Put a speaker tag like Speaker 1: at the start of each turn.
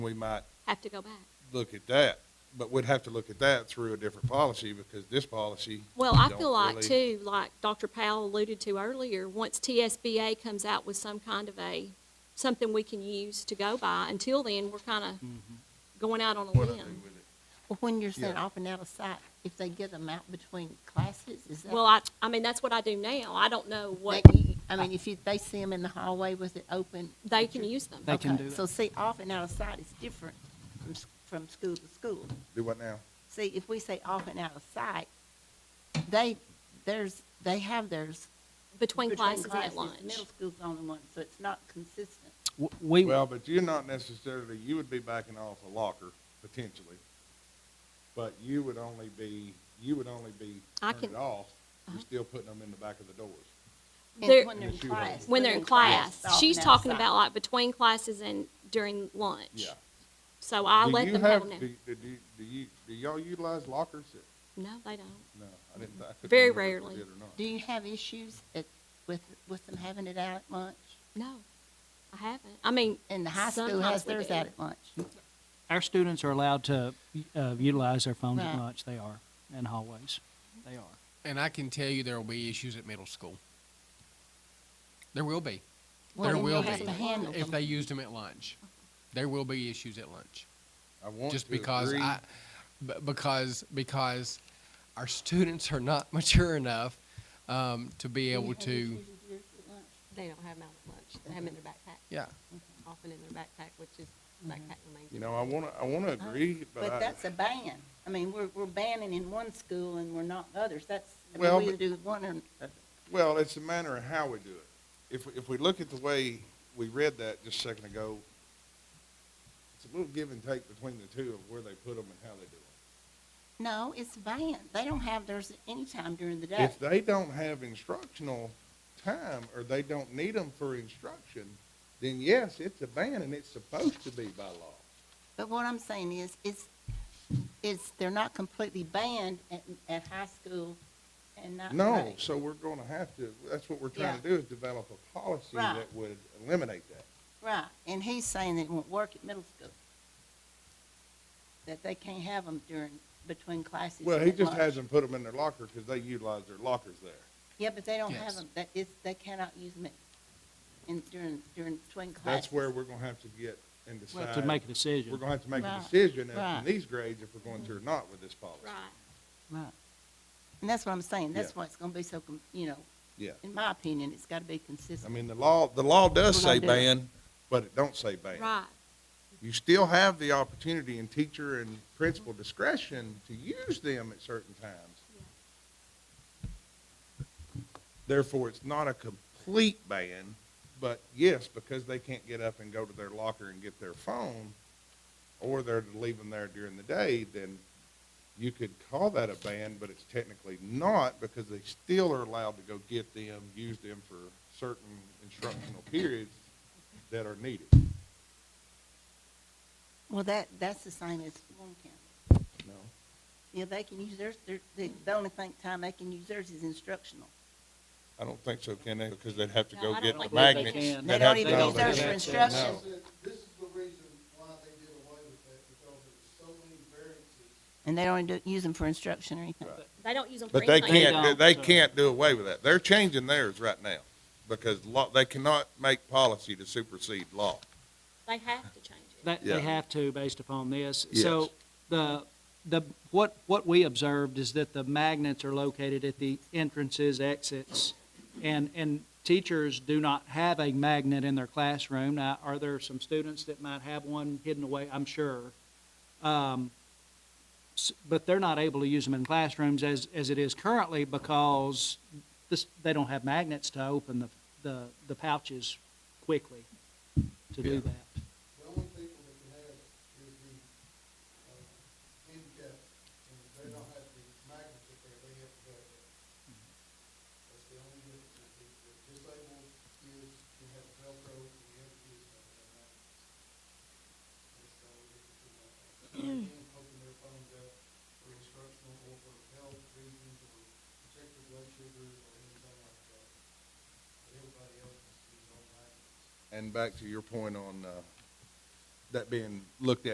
Speaker 1: we might
Speaker 2: have to go back.
Speaker 1: look at that. But we'd have to look at that through a different policy because this policy.
Speaker 2: Well, I
Speaker 1: don't
Speaker 2: feel like
Speaker 1: really-
Speaker 2: too, like Dr. Powell alluded to earlier, once TSBA comes out with some kind of a, something we can use to go by, until then, we're kind of going out on a
Speaker 1: Mm-hmm. What I do
Speaker 2: limb.
Speaker 1: with it.
Speaker 3: Well, when you're saying
Speaker 1: Yeah.
Speaker 3: off and out of sight, if they get them out between classes, is that?
Speaker 2: Well, I, I mean, that's what I do now. I don't know what,
Speaker 3: that you- I mean, if you, they see them in the hallway with it open.
Speaker 2: they
Speaker 3: that
Speaker 2: can
Speaker 3: you're-
Speaker 2: use them.
Speaker 4: They can
Speaker 3: Okay,
Speaker 4: do that.
Speaker 3: So see, off and out of sight is different from, s- from school to school.
Speaker 1: Do what now?
Speaker 3: See, if we say off and out of sight, they, there's, they have theirs.
Speaker 2: Between
Speaker 3: between
Speaker 2: classes and at
Speaker 3: classes.
Speaker 2: lunch.
Speaker 3: Middle school's the only one, so it's not consistent.
Speaker 4: W- We,
Speaker 1: Well, but you're not necessarily, you would be backing off a locker potentially. But you would only be, you would only be
Speaker 2: I
Speaker 1: turning
Speaker 2: can- Uh-huh.
Speaker 1: it off. You're still putting them in the back of the doors.
Speaker 3: And
Speaker 2: They're-
Speaker 3: When they're in
Speaker 1: Yes, you have.
Speaker 3: class.
Speaker 2: When they're in class,
Speaker 3: it's off
Speaker 2: she's
Speaker 3: and out of
Speaker 2: talking
Speaker 3: sight.
Speaker 2: about like between classes and during lunch.
Speaker 1: Yeah.
Speaker 2: So I
Speaker 1: Do
Speaker 2: let
Speaker 1: you
Speaker 2: them have
Speaker 1: have-
Speaker 2: them.
Speaker 1: Do, do, do- do you, do y'all utilize lockers?
Speaker 2: No, they don't.
Speaker 1: No, I didn't, I couldn't
Speaker 2: Very
Speaker 1: remember if
Speaker 2: rarely.
Speaker 1: they did or not.
Speaker 3: Do you have issues at, with, with them having it out at lunch?
Speaker 2: No, I haven't. I mean,
Speaker 3: And the high school
Speaker 2: Sometimes
Speaker 3: has
Speaker 2: we
Speaker 3: theirs
Speaker 2: do.
Speaker 3: out at lunch.
Speaker 4: our students are allowed to uh, utilize their phones at
Speaker 3: Right.
Speaker 4: lunch. They are in hallways. They are.
Speaker 5: And I can tell you there will be issues at middle school. There will be.
Speaker 3: Well,
Speaker 5: there
Speaker 3: then
Speaker 5: will
Speaker 3: you have
Speaker 5: be.
Speaker 3: to handle
Speaker 5: If
Speaker 3: them.
Speaker 5: they used them at lunch, there will be issues at lunch.
Speaker 1: I want
Speaker 5: Just
Speaker 1: to
Speaker 5: because
Speaker 1: agree.
Speaker 5: I, b- because, because our students are not mature enough um, to be able to,
Speaker 6: They don't have them out at lunch. They have them in their backpack,
Speaker 5: yeah.
Speaker 6: often in their backpack, which is backpack remains.
Speaker 1: Mm-hmm. You know, I wanna, I wanna
Speaker 2: Oh,
Speaker 1: agree, but
Speaker 3: But
Speaker 1: I,
Speaker 3: that's a ban. I mean, we're, we're banning in one school and we're not others. That's, I mean,
Speaker 1: Well,
Speaker 3: we
Speaker 1: but-
Speaker 3: either do one or,
Speaker 1: well, it's a matter of how we do it. If, if we look at the way we read that just a second ago, it's a little give and take between the two of where they put them and how they do it.
Speaker 3: no, it's banned. They don't have theirs at any time during the day.
Speaker 1: If they don't have instructional time or they don't need them for instruction, then yes, it's a ban and it's supposed to be by law.
Speaker 3: But what I'm saying is, it's, it's, they're not completely banned at, at high school and not.
Speaker 1: No,
Speaker 3: grade.
Speaker 1: so we're gonna have to, that's what we're trying to
Speaker 3: Yeah.
Speaker 1: do is develop a policy
Speaker 3: Right.
Speaker 1: that would eliminate that.
Speaker 3: Right, and he's saying that it won't work at middle school. That they can't have them during, between classes.
Speaker 1: Well,
Speaker 3: and
Speaker 1: he
Speaker 3: at
Speaker 1: just
Speaker 3: lunch.
Speaker 1: hasn't put them in their locker because they utilize their lockers there.
Speaker 3: Yeah, but they don't have
Speaker 5: Yes.
Speaker 3: them, that is, they cannot use them in, during, during between classes.
Speaker 1: That's where we're gonna have to get and
Speaker 4: We'll
Speaker 1: decide.
Speaker 4: have to make a
Speaker 1: We're
Speaker 4: decision.
Speaker 1: gonna have to make a
Speaker 3: Right,
Speaker 1: decision as
Speaker 3: right.
Speaker 1: in these grades if we're going to or not with this policy.
Speaker 2: right.
Speaker 3: Right. And that's what I'm saying, that's
Speaker 1: Yeah.
Speaker 3: why it's gonna be so, com- you know,
Speaker 1: Yeah.
Speaker 3: in my opinion, it's gotta be
Speaker 1: I
Speaker 3: consistent.
Speaker 1: mean, the law, the law does
Speaker 3: We're
Speaker 1: say
Speaker 3: gonna do it.
Speaker 1: ban, but it don't say ban.
Speaker 2: Right.
Speaker 1: You still have the opportunity in teacher and principal discretion to use them at certain times. Therefore, it's not a complete ban, but yes, because they can't get up and go to their locker and get their phone, or they're to leave them there during the day, then you could call that a ban, but it's technically not because they still are allowed to go get them, use them for certain instructional periods that are needed.
Speaker 3: Well, that, that's the same as Warren County.
Speaker 1: No.
Speaker 3: Yeah, they can use theirs, their, the, the only thing, time they can use theirs is instructional.
Speaker 1: I don't think so, can they? Because they'd have to
Speaker 2: No,
Speaker 1: go
Speaker 2: I don't
Speaker 1: get
Speaker 2: think
Speaker 1: the
Speaker 2: they
Speaker 1: magnets.
Speaker 4: can.
Speaker 3: They
Speaker 1: They'd
Speaker 3: don't
Speaker 1: have to
Speaker 3: even
Speaker 1: go-
Speaker 3: use theirs for
Speaker 1: No.
Speaker 3: instruction.
Speaker 7: This is the reason why they did away with that, because there were so many variances
Speaker 3: And they don't do, use them for instruction or anything.
Speaker 2: They don't use them for
Speaker 1: But they
Speaker 2: anything.
Speaker 1: can't,
Speaker 4: don't,
Speaker 1: they
Speaker 4: so-
Speaker 1: can't do away with that. They're changing theirs right now because law, they cannot make policy to supersede law.
Speaker 2: They have to change it.
Speaker 4: They,
Speaker 1: Yeah.
Speaker 4: they have to based upon this.
Speaker 1: Yes.
Speaker 4: So the, the, what, what we observed is that the magnets are located at the entrances, exits, and, and teachers do not have a magnet in their classroom. Now, are there some students that might have one hidden away? I'm sure. Um, s- but they're not able to use them in classrooms as, as it is currently because this, they don't have magnets to open the, the, the pouches quickly to do that.
Speaker 7: The only people that can have it is the, uh, handicapped, and they don't have the magnets up there, they have to go. That's the only difference, is the the disabled kids can have Velcro, and the other kids don't have magnets. That's the only difference in that. They can't open their phones up for instructional or for health reasons, or check their blood sugars, or anything like that. But everybody else is on magnets.
Speaker 1: And back to your point on, uh, that being looked at